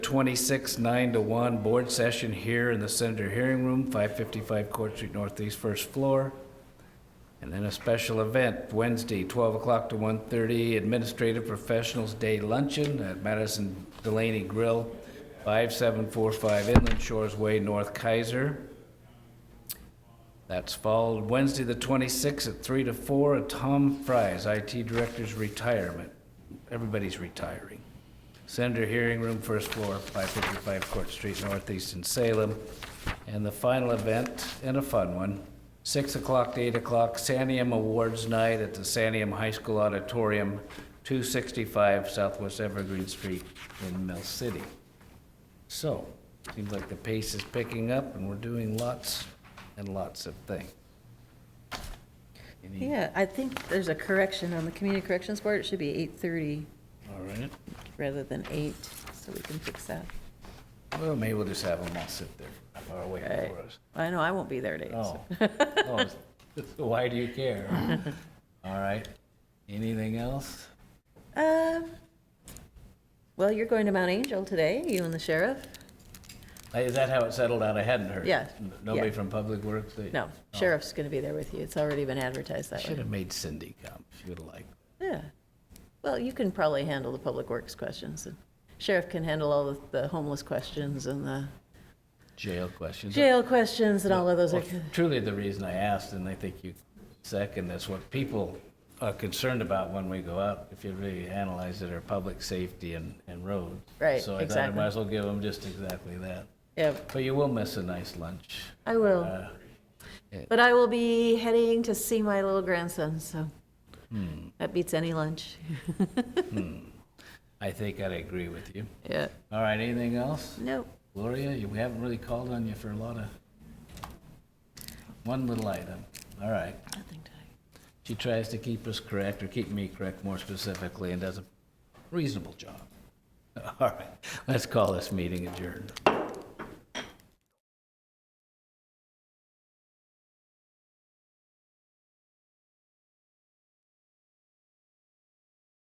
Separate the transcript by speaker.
Speaker 1: 26, 9 to 1, board session here in the Senator Hearing Room, 555 Court Street Northeast, first floor. And then a special event, Wednesday, 12 o'clock to 1:30, Administrative Professionals Day Luncheon at Madison Delaney Grill, 5745 Inland Shores Way, North Kaiser. That's followed Wednesday, the 26th, at 3 to 4, at Tom Fry's, IT Director's Retirement. Everybody's retiring. Senator Hearing Room, first floor, 555 Court Street Northeast in Salem. And the final event, and a fun one, 6 o'clock to 8 o'clock, Sanium Awards Night at the Sanium High School Auditorium, 265 Southwest Evergreen Street in Mill City. So, seems like the pace is picking up and we're doing lots and lots of things. Any-
Speaker 2: Yeah, I think there's a correction on the community corrections board. It should be eight thirty
Speaker 1: All right.
Speaker 2: rather than eight, so we can fix that.
Speaker 1: Well, maybe we'll just have them all sit there, far away
Speaker 2: Right.
Speaker 1: for us.
Speaker 2: I know, I won't be there at eight.
Speaker 1: Oh.
Speaker 2: so-
Speaker 1: Oh, so Why do you care? All right. Anything else? Oh.
Speaker 2: Um, Well, you're going to Mount Angel today, you and the sheriff?
Speaker 1: Hey, Uh, Is that how it settled out? I hadn't heard.
Speaker 2: Yeah,
Speaker 1: N- Nobody
Speaker 2: yeah.
Speaker 1: from Public Works? They-
Speaker 2: No, sheriff's going to be there with you. It's already been advertised that
Speaker 1: Should
Speaker 2: way.
Speaker 1: have made Cindy come. She would have liked.
Speaker 2: Yeah. Well, you can probably handle the public works questions. and Sheriff can handle all the- the homeless questions and the
Speaker 1: Jail questions.
Speaker 2: jail questions and all of those. are
Speaker 1: Well, Truly, the reason I asked, and I think you second this, what people are concerned about when we go out, if you really analyze it, are public safety and, and roads.
Speaker 2: Right,
Speaker 1: So I thought I might
Speaker 2: exactly.
Speaker 1: as well give them just exactly that.
Speaker 2: Yeah,
Speaker 1: But you will miss a nice lunch.
Speaker 2: I will.
Speaker 1: Uh,
Speaker 2: But I will be heading to see my little grandson, so that beats any lunch.
Speaker 1: I think I'd agree with you.
Speaker 2: Yeah.
Speaker 1: All right, anything else?
Speaker 2: Nope.
Speaker 1: Gloria, you, we haven't really called on you for a lot of, one little item. All right.
Speaker 2: Nothing to.
Speaker 1: She tries to keep us correct, or keep me correct more specifically, and does a reasonable job. All right, let's call this meeting adjourned.